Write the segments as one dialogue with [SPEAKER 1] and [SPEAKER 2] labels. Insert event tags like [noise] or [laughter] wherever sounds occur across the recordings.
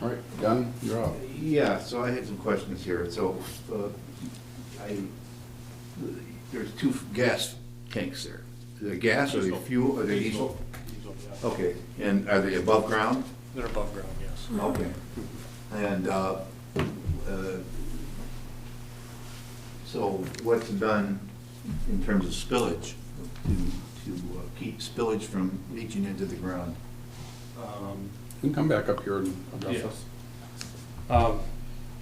[SPEAKER 1] All right, Donnie, you're up.
[SPEAKER 2] Yeah, so I had some questions here. So, uh, I, there's two gas tanks there. Are they gas, are they fuel, are they diesel?
[SPEAKER 3] Diesel, yeah.
[SPEAKER 2] Okay, and are they above ground?
[SPEAKER 3] They're above ground, yes.
[SPEAKER 2] Okay. And, uh, uh, so what's done in terms of spillage to, to uh, keep spillage from leaching into the ground?
[SPEAKER 3] Um,
[SPEAKER 1] You can come back up here and address us.
[SPEAKER 3] Um,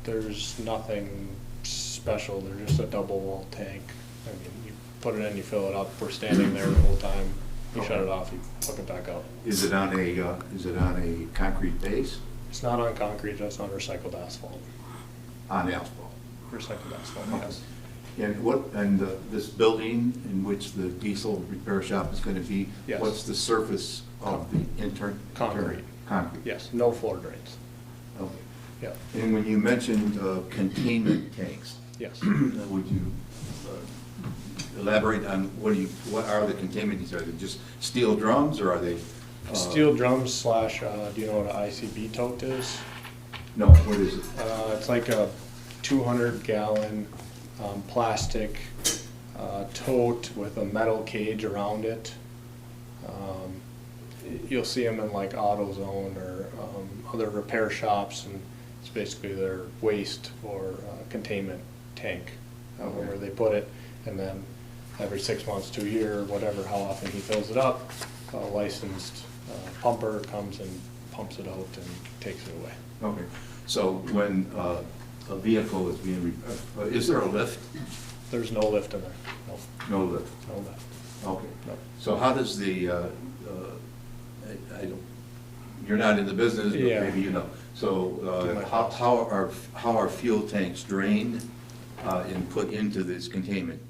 [SPEAKER 3] there's nothing special, they're just a double wall tank. I mean, you put it in, you fill it up, we're standing there the whole time, you shut it off, you hook it back up.
[SPEAKER 2] Is it on a, uh, is it on a concrete base?
[SPEAKER 3] It's not on concrete, that's on recycled asphalt,
[SPEAKER 2] On asphalt?
[SPEAKER 3] recycled asphalt, yes.
[SPEAKER 2] And what, and uh, this building in which the diesel repair shop is going to be?
[SPEAKER 3] Yes.
[SPEAKER 2] What's the surface of the intern?
[SPEAKER 3] Concrete.
[SPEAKER 2] Concrete?
[SPEAKER 3] Yes, no floor drains,
[SPEAKER 2] Okay.
[SPEAKER 3] yeah,
[SPEAKER 2] And when you mentioned uh, containment tanks, [clears throat]
[SPEAKER 3] [clears throat] yes.
[SPEAKER 2] would you uh, elaborate on what do you, what are the containment tanks? Are they just steel drums or are they? uh,
[SPEAKER 3] Steel drums slash, uh, do you know what an ICB tote is?
[SPEAKER 2] No, what is it?
[SPEAKER 3] Uh, it's like a two hundred gallon, um, plastic, uh, tote with a metal cage around it. Um, y- You'll see them in like AutoZone or, um, other repair shops and it's basically their waste or uh, containment tank. uh, Where
[SPEAKER 2] Okay.
[SPEAKER 3] they put it and then every six months to a year, whatever, how often he fills it up, a licensed uh, pumper comes and pumps it out and takes it away.
[SPEAKER 2] Okay, so when uh, a vehicle is being, re- uh, is there a lift?
[SPEAKER 3] There's no lift in there, no,
[SPEAKER 2] No lift.
[SPEAKER 3] no lift,
[SPEAKER 2] Okay.
[SPEAKER 3] no.
[SPEAKER 2] So how does the, uh, uh, I I don't, you're not in the business, but
[SPEAKER 3] Yeah.
[SPEAKER 2] maybe you know. So
[SPEAKER 3] Too much.
[SPEAKER 2] uh, how how are, how are fuel tanks drained uh, and put into this containment?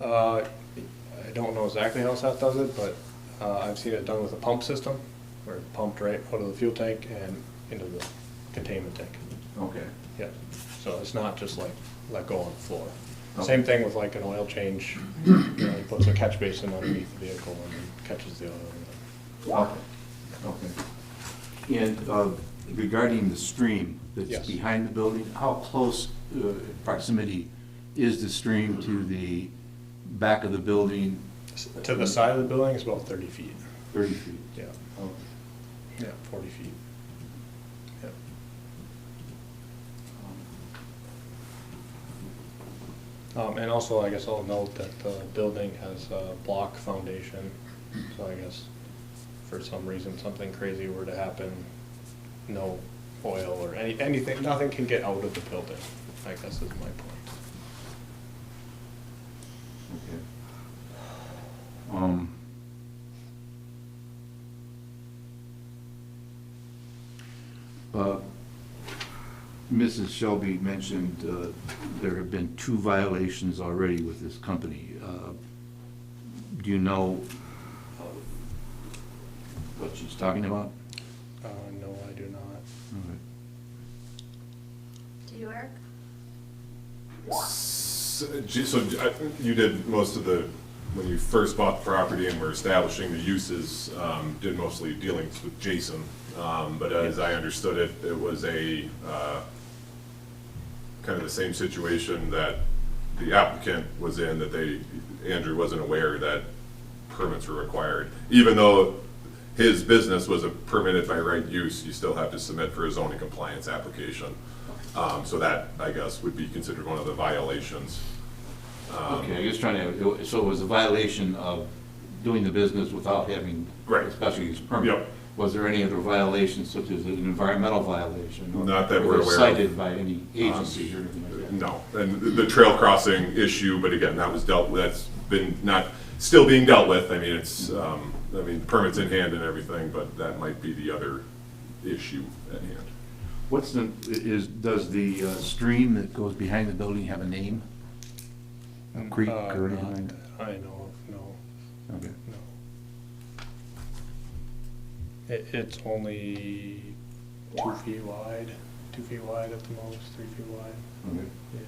[SPEAKER 3] Uh, I don't know exactly how South does it, but uh, I've seen it done with a pump system, where it pumped right out of the fuel tank and into the containment tank.
[SPEAKER 2] Okay,
[SPEAKER 3] Yeah, so it's not just like let go on the floor.
[SPEAKER 2] Okay.
[SPEAKER 3] Same thing with like an oil change, you know, he puts a catch basin underneath the vehicle and then catches the oil.
[SPEAKER 2] okay, okay. And uh, regarding the stream
[SPEAKER 3] Yes.
[SPEAKER 2] that's behind the building, how close uh, proximity is the stream to the back of the building?
[SPEAKER 3] To the side of the building is about thirty feet,
[SPEAKER 2] Thirty feet.
[SPEAKER 3] yeah,
[SPEAKER 2] Okay.
[SPEAKER 3] yeah, forty feet. Yeah. Um, and also, I guess I'll note that the building has a block foundation, so I guess for some reason, something crazy were to happen, no oil or any, anything, nothing can get out of the building, I guess is my point.
[SPEAKER 2] Okay. Um, uh, Mrs. Shelby mentioned uh, there have been two violations already with this company. Uh, Do you know uh, what she's talking about?
[SPEAKER 3] Uh, no, I do not.
[SPEAKER 4] Do you, Eric?
[SPEAKER 5] S- j- So j- I- you did most of the, when you first bought the property and were establishing the uses, um, did mostly dealings with Jason. Um, But as I understood it, it was a, uh, kind of the same situation that the applicant was in, that they, Andrew wasn't aware that permits were required. Even though his business was a permitted by right use, you still have to submit for a zoning compliance application. Um, So that, I guess, would be considered one of the violations.
[SPEAKER 2] Okay, I was trying to, so it was a violation of doing the business without having
[SPEAKER 5] Right.
[SPEAKER 2] a special use permit?
[SPEAKER 5] Yep.
[SPEAKER 2] Was there any other violations, such as an environmental violation? or-
[SPEAKER 5] Not that we're
[SPEAKER 2] or
[SPEAKER 5] aware of. Um,
[SPEAKER 2] Cited by any agency or anything like that?
[SPEAKER 5] No, and the- the trail crossing issue, but again, that was dealt with, that's been not, still being dealt with. I mean, it's, um, I mean, permits in hand and everything, but that might be the other issue at hand.
[SPEAKER 2] What's the, is, does the uh, stream that goes behind the building have a name? A creek
[SPEAKER 3] Uh,
[SPEAKER 2] or
[SPEAKER 3] not
[SPEAKER 2] anything?
[SPEAKER 3] that I know, of, no.
[SPEAKER 2] Okay.
[SPEAKER 3] No. It, it's only two feet wide, two feet wide at the most, three feet wide,
[SPEAKER 2] okay.
[SPEAKER 3] yeah.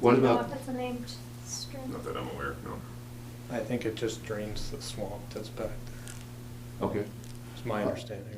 [SPEAKER 2] What
[SPEAKER 4] Do you know
[SPEAKER 2] about,
[SPEAKER 4] if it's a named stream?
[SPEAKER 5] Not that I'm aware, no.
[SPEAKER 3] I think it just drains the swamp that's back there,
[SPEAKER 2] okay.
[SPEAKER 3] is my understanding